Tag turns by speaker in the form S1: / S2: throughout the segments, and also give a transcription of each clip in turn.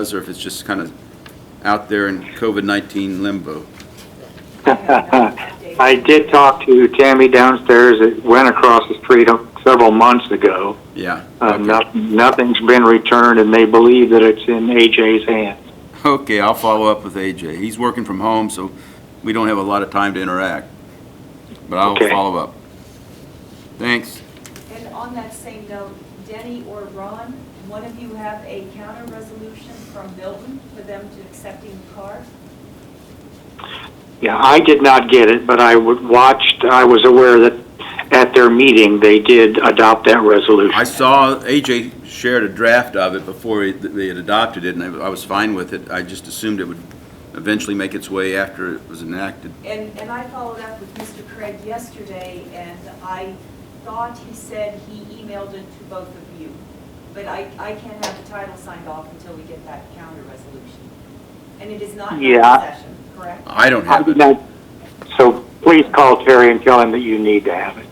S1: does, or if it's just kind of out there in COVID-19 limbo.
S2: I did talk to Tammy downstairs. It went across the street several months ago.
S1: Yeah.
S2: Uh,
S1: Okay.
S2: no- Nothing's been returned, and they believe that it's in AJ's hands.
S1: Okay, I'll follow up with AJ. He's working from home, so we don't have a lot of time to interact. But I'll
S2: Okay.
S1: follow up. Thanks.
S3: And on that same note, Denny or Ron, one of you have a counter resolution from Milton for them to accepting the car?
S2: Yeah, I did not get it, but I would watched, I was aware that at their meeting, they did adopt that
S1: I
S2: resolution.
S1: saw AJ shared a draft of it before he- they had adopted it, and I I was fine with it. I just assumed it would eventually make its way after it was enacted.
S3: And, and I followed up with Mr. Craig yesterday, and I thought he said he emailed it to both of you. But I, I can't have the title signed off until we get that counter resolution. And it is not in
S2: Yeah.
S3: session, correct?
S1: I don't
S2: I
S1: have it.
S2: did not- So please call Terry and tell him that you need to have it.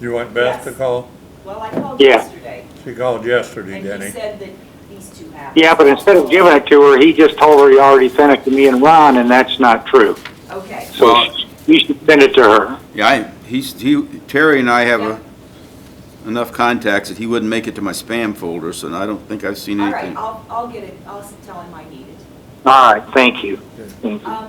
S4: You want Beth to
S3: Yes.
S4: call?
S3: Well, I called
S2: Yeah.
S3: yesterday,
S4: She called yesterday,
S3: and he
S4: Denny.
S3: said that these two have. it.
S2: Yeah, but instead of giving it to her, he just told her he already sent it to me and Ron, and that's not true.
S3: Okay.
S2: So
S1: Well-
S2: you should send it to her.
S1: Yeah, I, he's, he, Terry and I have a- enough contacts that he wouldn't make it to my spam folder, so I don't think I've seen
S3: All
S1: anything.
S3: right, I'll, I'll get it, I'll s- tell him I need it.
S2: All right, thank you. Thank you.
S3: Um,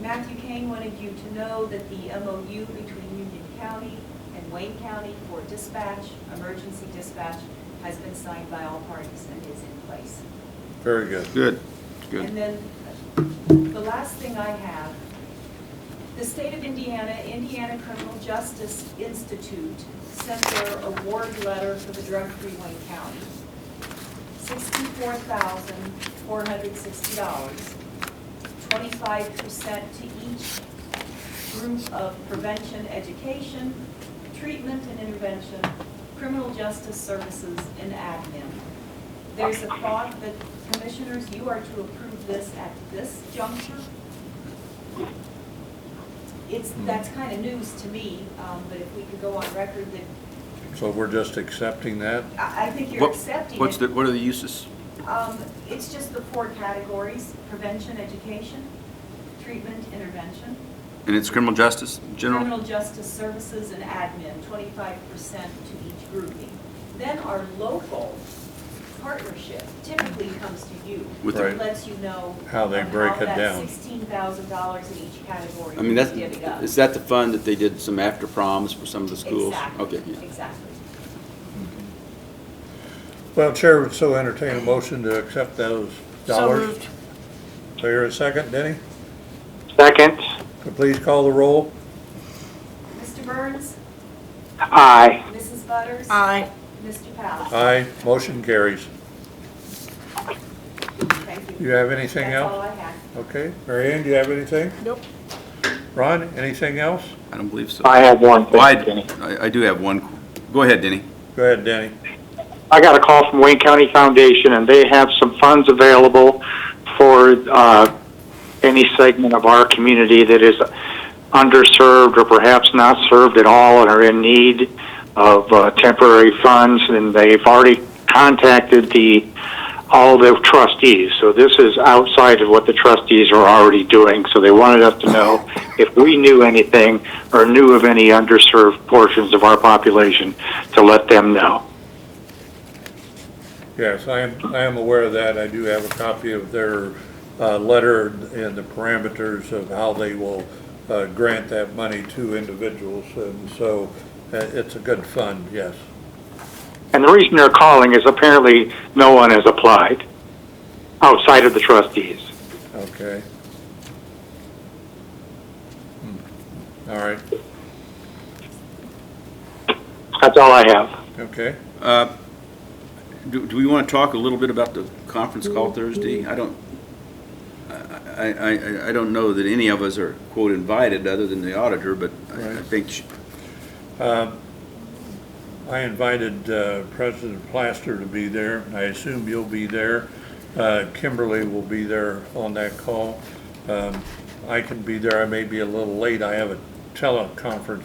S3: Matthew Kane wanted you to know that the MOU between Union County and Wayne County for dispatch, emergency dispatch, has been signed by all parties and is in place.
S4: Very good.
S1: Good, good.
S3: And then, the last thing I have, the state of Indiana, Indiana Criminal Justice Institute sent their award letter for the drug-free Wayne County. Sixty-four thousand, four hundred sixty dollars, twenty-five percent to each group of prevention, education, treatment and intervention, criminal justice services, and admin. There's a thought that commissioners, you are to approve this at this juncture. It's,
S1: Hmm.
S3: that's kind of news to me, um, but if we could go on record that,
S4: So we're just accepting that?
S3: I, I think you're
S1: What-
S3: accepting it.
S1: What's the, what are the uses?
S3: Um, it's just the four categories, prevention, education, treatment, intervention,
S1: And it's criminal justice, general?
S3: criminal justice services, and admin, twenty-five percent to each grouping. Then our local partnership typically comes to you.
S1: With
S4: the- Right.
S3: Lets you know.
S4: How they
S3: on
S4: break it down.
S3: sixteen thousand dollars in each category.
S1: I mean, that's,
S3: divvied up.
S1: is that the fund that they did some after proms for some of the schools?
S3: Exactly,
S1: Okay, yeah.
S3: exactly.
S4: Well, Chair would so entertain a motion to accept those dollars.
S5: moved.
S4: So you're a second, Denny?
S2: Second,
S4: Could please call the roll?
S3: Mr. Burns,
S2: aye.
S3: Mrs. Butters.
S5: Aye.
S3: Mr. Powell.
S4: Aye, motion carries.
S3: Thank you.
S4: You have anything
S3: That's all
S4: else?
S3: I had.
S4: Okay, Mary Ann, do you have anything?
S5: Nope.
S4: Ron, anything else?
S1: I don't believe so.
S2: I have one
S1: Well, I-
S2: thing, Denny.
S1: I, I do have one. Go ahead, Denny.
S4: Go ahead, Denny.
S2: I got a call from Wayne County Foundation, and they have some funds available for uh, any segment of our community that is underserved or perhaps not served at all and are in need of uh, temporary funds, and they've already contacted the, all the trustees. So this is outside of what the trustees are already doing, so they wanted us to know if we knew anything or knew of any underserved portions of our population to let them know.
S4: Yes, I am, I am aware of that. I do have a copy of their uh, letter and the parameters of how they will uh, grant that money to individuals. And so uh, it's a good fund, yes.
S2: And the reason they're calling is apparently no one has applied outside of the trustees.
S4: Okay. Hmm. All right,
S2: That's all I have.
S4: okay.
S1: Uh, Do, do we want to talk a little bit about the conference call Thursday? I don't, I, I, I- I don't know that any of us are quote invited, other than the auditor, but I I
S4: Right.
S1: think, she-
S4: Um, I invited uh, President Plaster to be there. I assume you'll be there. Uh, Kimberly will be there on that call. Um, I can be there. I may be a little late. I have a teleconference,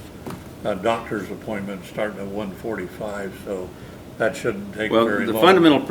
S4: uh doctor's appointment starting at 1:45, so
S6: That shouldn't take very
S4: Well,
S6: long.
S4: the fundamental